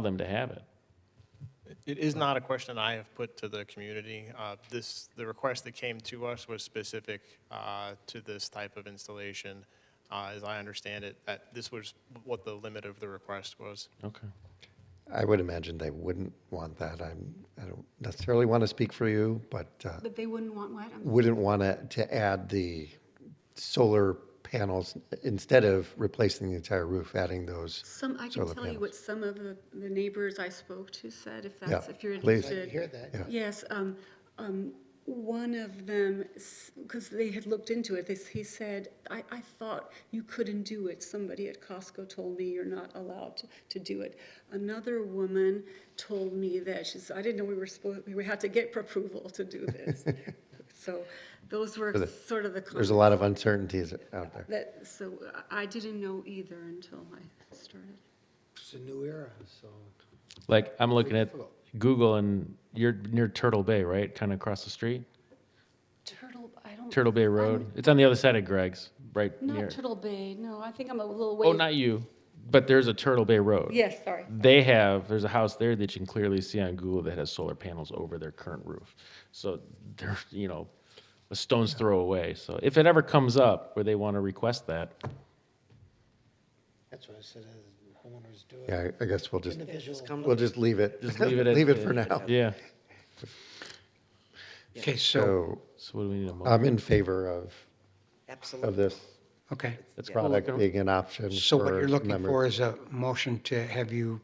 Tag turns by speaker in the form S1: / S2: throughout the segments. S1: them to have it.
S2: It is not a question I have put to the community. Uh, This, the request that came to us was specific uh, to this type of installation. Uh, As I understand it, that this was what the limit of the request was.
S1: Okay.
S3: I would imagine they wouldn't want that. I'm, I don't necessarily want to speak for you, but uh,
S4: But they wouldn't want what? I'm-
S3: wouldn't want to, to add the solar panels instead of replacing the entire roof, adding those.
S4: Some, I can
S3: Solar
S4: tell you
S3: panels.
S4: what some of the, the neighbors I spoke to said, if
S3: Yeah,
S4: that's, if you're
S3: please.
S4: interested.
S5: hear that.
S3: Yeah.
S4: Yes, um, um, one of them, because they had looked into it, this, he said, I, I thought you couldn't do it. Somebody at Costco told me you're not allowed to, to do it. Another woman told me that, she says, I didn't know we were supposed, we had to get approval to do this. So those were
S3: the-
S4: sort of the.
S3: There's a lot of uncertainties out there.
S4: That, so I I didn't know either until I started.
S5: It's a new era, so.
S1: Like, I'm looking at Google and you're near Turtle Bay, right? Kind of across the street?
S4: Turtle, I don't.
S1: Turtle Bay Road. It's on the other side of Greg's, right near.
S4: Not Turtle Bay, no, I think I'm a little way.
S1: Oh, not you, but there's a Turtle Bay Road.
S4: Yes, sorry.
S1: They have, there's a house there that you can clearly see on Google that has solar panels over their current roof. So they're, you know, a stone's throw away. So if it ever comes up where they want to request that,
S5: That's what I said, uh, homeowners do it.
S3: Yeah, I- I guess we'll just,
S5: Individuals come
S3: we'll just leave it.
S1: just leave it at.
S3: for now.
S1: Yeah.
S5: Okay, so,
S3: So
S1: So what do we need a motion?
S3: I'm in favor of, of
S6: Absolutely.
S3: this
S5: okay.
S1: That's cool.
S3: product being an option.
S5: So what you're looking
S3: members.
S5: for is a motion to have you,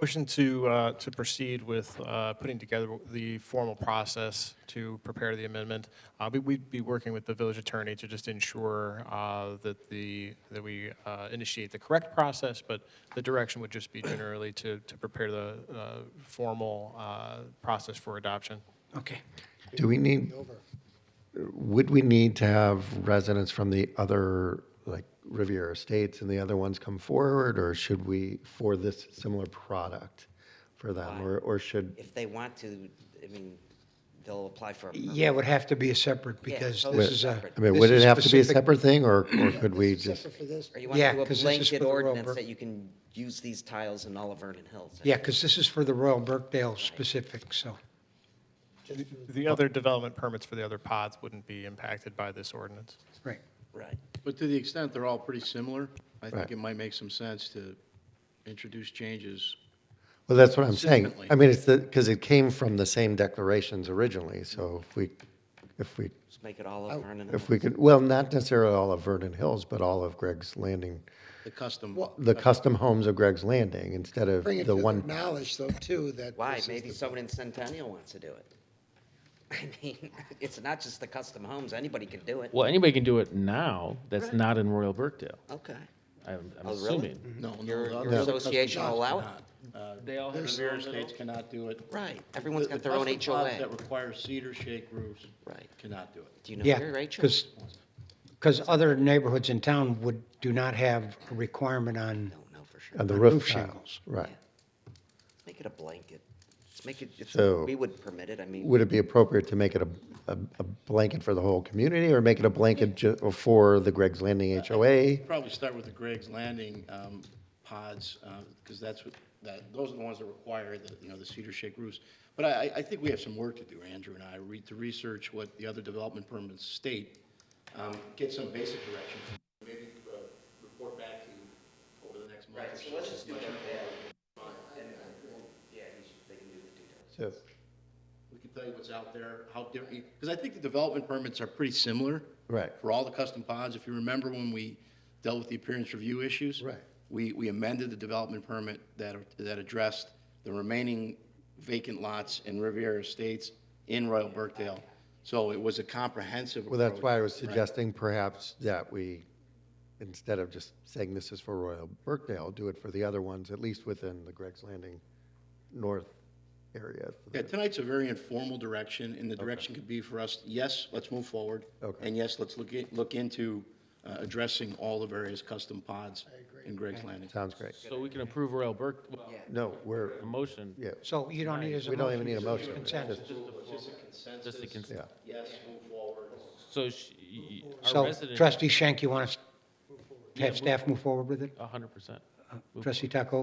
S2: Motion to, uh, to proceed with uh, putting together the formal process to prepare the amendment. Uh, we- We'd be working with the village attorney to just ensure uh, that the, that we uh, initiate the correct process, but the direction would just be generally to, to prepare the uh, formal uh, process for adoption.
S5: okay.
S3: Do we need, would we need to have residents from the other, like Riviera Estates and the other ones come forward? Or should we, for this similar product for them, or, or should,
S6: If they want to, I mean, they'll apply for a permit.
S5: Yeah, it would have to be a separate
S6: Yeah,
S5: because
S6: totally
S5: this is a.
S6: separate.
S3: I mean,
S5: this
S3: would it
S5: is
S3: have to be a
S5: specific-
S3: separate thing, or, or could we just?
S5: Separate for this.
S6: Or you want
S5: Yeah,
S6: to do
S5: 'cause this
S6: a
S5: is for
S6: blanket
S5: the Royal
S6: ordinance
S5: Burke-
S6: that you can use these tiles in all of Vernon Hills.
S5: Yeah, because this is for the Royal Burkdale specific, so.
S2: The other development permits for the other pods wouldn't be impacted by this ordinance.
S5: Right.
S6: Right.
S7: But to the extent they're all pretty similar, I
S3: Right.
S7: think it might make some sense to introduce changes.
S3: Well, that's what I'm saying.
S7: Consistently.
S3: I mean, it's the, because it came from the same declarations originally, so if we, if we,
S6: Just make it all of Vernon Hills.
S3: Oh, if we could, well, not necessarily all of Vernon Hills, but all of Greg's Landing,
S7: The custom,
S3: the custom homes of Greg's Landing, instead of
S8: Bring it
S3: the
S8: to their
S3: one
S8: knowledge, though, too, that.
S6: Why?
S8: this is
S6: Maybe
S8: the-
S6: someone in Centennial wants to do it. I mean, it's not just the custom homes, anybody can do it.
S1: Well, anybody can do it now that's not in Royal Burkdale,
S6: Okay.
S1: I'm I'm
S6: Oh, really?
S1: assuming.
S7: no, no.
S6: Your-
S7: the
S6: your
S7: other custom
S6: association will
S7: shops
S6: allow
S7: cannot. Uh,
S1: They all have
S7: The
S1: their
S7: rear
S1: own
S7: estates cannot do it.
S6: Right. Everyone's
S7: The-
S6: got
S7: the
S6: their own
S7: custom pods
S6: HOA.
S7: That require cedar shake roofs.
S6: Right.
S7: Cannot do it.
S6: Do you know
S5: Yeah,
S6: your HOA?
S5: because, because other neighborhoods in town would, do not have a requirement on
S6: Don't know for sure.
S3: And the
S5: on
S3: roof
S5: roof
S3: shingles,
S5: shingles.
S3: right.
S6: Make it a blanket. Just make it, if
S3: So-
S6: we would permit it, I mean.
S3: Would it be appropriate to make it a, a, a blanket for the whole community or make it a blanket ju- for the Greg's Landing HOA?
S7: Probably start with the Greg's Landing um, pods, because that's what, that, those are the ones that require the, you know, the cedar shake roofs. But I, I- I think we have some work to do, Andrew and I, re- to research what the other development permits state, um, get some basic direction, maybe uh, report back to you over the next month. Right, so let's just do
S3: So,
S7: We can tell you what's out there, how different, because I think the development permits are pretty similar.
S3: Right.
S7: For all the custom pods, if you remember when we dealt with the appearance review issues.
S3: Right.
S7: We, we amended the development permit that, that addressed the remaining vacant lots in Riviera Estates in Royal Burkdale. So it was a comprehensive
S3: Well, that's
S7: approach.
S3: why I was suggesting perhaps that we, instead of just saying this is for Royal Burkdale, do it for the other ones, at least within the Greg's Landing North area.
S7: Yeah, tonight's a very informal direction, and the direction could be for us, yes, let's move forward.
S3: Okay.
S7: And yes, let's look, at- look into uh, addressing all the various custom pods in Greg's Landing.
S3: Sounds great.
S1: So we can approve Royal Burke, well,
S3: No, we're,
S1: a motion,
S3: yeah,
S5: So you don't need as a
S3: we don't
S5: motion.
S3: even need a
S5: it's
S3: motion.
S5: consensus.
S3: Just-
S1: just to cons-
S3: Yeah.
S7: Yes, move forward.
S1: So she, our
S5: So
S1: resident.
S5: trustee Shank, you want us to have staff move forward with it?
S1: A hundred percent.
S5: Trustee Taco?